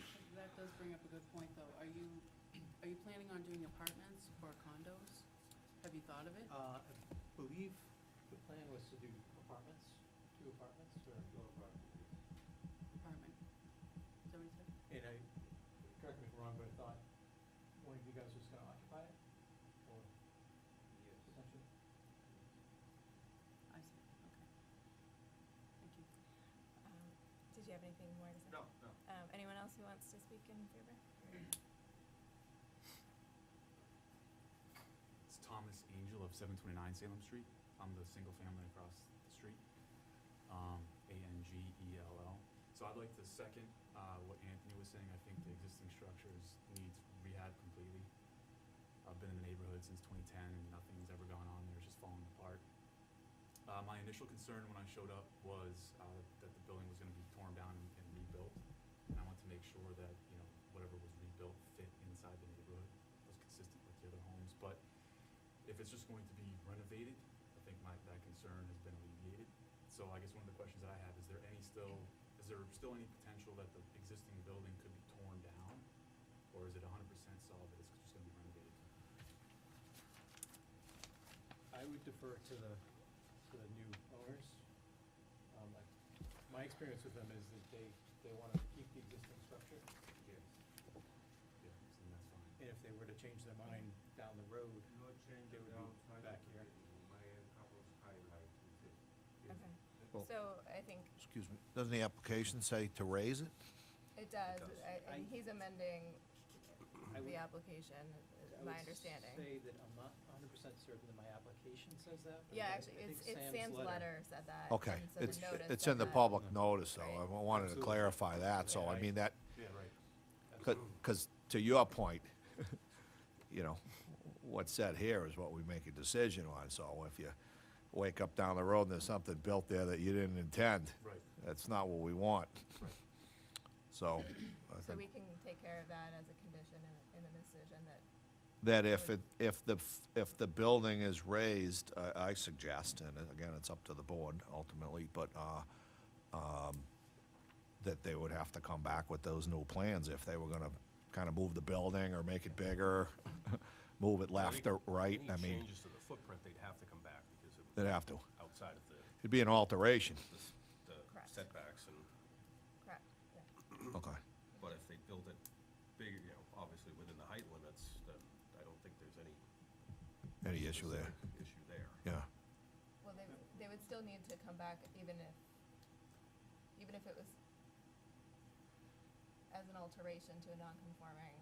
does bring up a good point, though. Are you, are you planning on doing apartments or condos? Have you thought of it? Uh, I believe the plan was to do apartments, two apartments, or, Apartment? Is that what you said? and I, correct me if I'm wrong, but I thought one of you guys was gonna occupy it, or potentially? I see, okay. Thank you. Um, Did you have anything more to say? No, no. Um, anyone else who wants to speak in favor? It's Thomas Angel of seven twenty-nine Salem Street. I'm the single family across the street. Um, A N G E L L. So I'd like to second, uh, what Anthony was saying. I think the existing structures needs rehab completely. I've been in the neighborhood since twenty ten and nothing's ever gone on there. It's just falling apart. Uh, my initial concern when I showed up was, uh, that the building was gonna be torn down and- and rebuilt. And I want to make sure that, you know, whatever was rebuilt fit inside the neighborhood, was consistent with the other homes. But if it's just going to be renovated, I think my, that concern has been alleviated. So I guess one of the questions that I have, is there any still, is there still any potential that the existing building could be torn down? Or is it hundred percent solid that it's just gonna be renovated? I would defer to the, to the new owners. Um, like, my experience with them is that they, they wanna keep the existing structure, Yes. Yeah, so then that's fine. and if they were to change their mind down the road, No change They would be downside. back here. My couple's highlight is it. Is Okay. Well- So I think Excuse me, doesn't the application say to raise it? it does, does. I- and I- he's amending I would the application, is I my would understanding. Say that I'm not hundred percent certain that my application says that, but Yeah, I- actually, I think it's, it's Sam's letter said that. Okay, and so the it's, notice it's said in the that. public notice, though, I Right. wa- wanted to Absolutely. clarify that, so I Yeah, mean, that, Yeah, right. because to your point, you know, what's said here is what we make a decision on, so if you wake up down the road and there's something built there that you didn't intend, Right. that's not what we want. Right. So, I So we think can take care of that as a condition in, in the decision that, that if it, if the, f- if the building is raised, I, I suggest, and again, it's up to the board ultimately, but, uh, um, that they would have to come back with those new plans if they were gonna kind of move the building or make it bigger, move it left or right, I Any mean, changes to the footprint, they'd have to come back because it they'd was have to. outside of the, It'd be an alteration. the s- the Correct. setbacks and, correct, yeah. Okay. but if they built it bigger, you know, obviously within the height limits, then I don't think there's any. Any issue there? specific Issue there. Yeah. Well, they, w- they would still need to come back even if, even if it was as an alteration to a non-conforming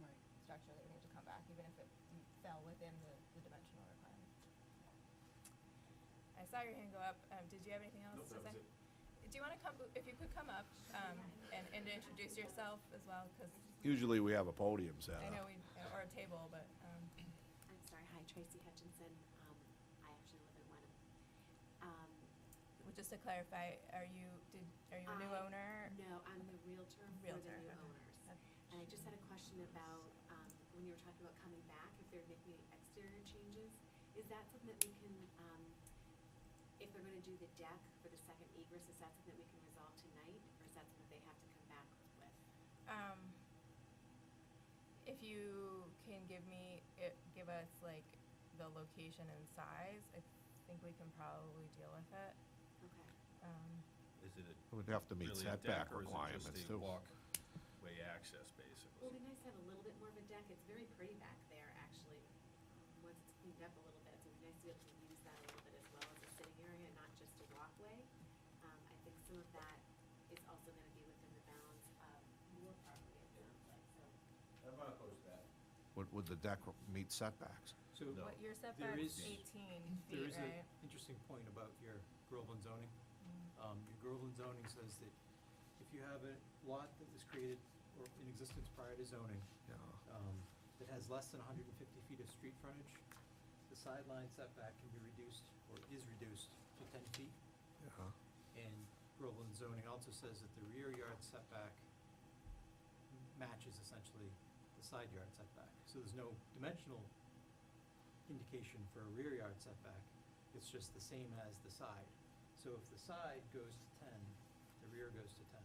Right. structure, they would need to come back, even if it m- fell within the, the dimensional requirement. I saw your hand go up. Um, did you have anything else No, to say? that was it. Do you wanna come, if you could come up, um, and, and introduce yourself as well, cause Usually we have a podium set I know up. we, or a table, but, um, I'm sorry, hi, Tracy Hutchinson. Um, I actually live in Wenham. Um, just to clarify, are you, did, are you a new I- owner? no, I'm the realtor for the Realtor, okay. new owners. Yep. And I just had a question about, um, when you were talking about coming back, if they're making any exterior changes, is that something that we can, um, if they're gonna do the deck for the second egress, is that something that we can resolve tonight? Or is that something they have to come back with? Um, if you can give me, it, give us like the location and size, I think we can probably deal with it. Okay. Um, Is it a We'd have to meet really a deck setback or is it requirements just a too. walkway access Well, it'd basically? be nice to have a little bit more of a deck. It's very pretty back there, actually, um, once it's cleaned up a little bit. So it'd be nice to be able to use that a little bit as well as a sitting area, not just a walkway. Um, I think some of that is also gonna be within the bounds of your property, it sounds like, so. I'm not opposed to that. Would, would the deck meet setbacks? So No. what your there setback's is, eighteen there feet, is an right? interesting point about your Groveland zoning. Um, your Groveland zoning says that if you have a lot that was created or in existence prior to zoning, Yeah. um, that has less than hundred and fifty feet of street frontage, the sideline setback can be reduced or is reduced to ten feet. Yeah. And Groveland zoning also says that the rear yard setback matches essentially the side yard setback. So there's no dimensional indication for a rear yard setback, it's just the same as the side. So if the side goes to ten, the rear goes to ten.